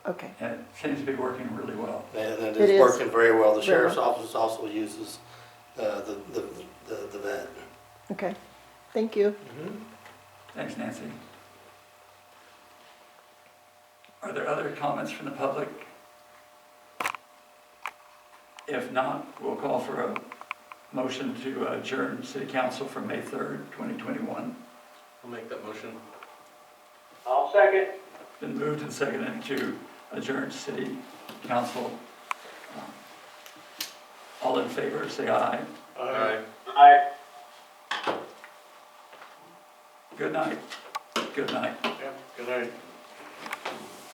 Okay, and it seems to be working really well. And It it is is. working very well. The sheriff's Very office also uses uh, the the the the vet. okay. Thank you. Mm-hmm. Thanks, Nancy. Are there other comments from the public? If not, we'll call for a motion to adjourn city council from May 3rd, 2021. I'll make that motion. I'll second. Been moved and seconded to adjourn city council. All in favor, say aye. Aye. Aye. Good night. Good night. Good night.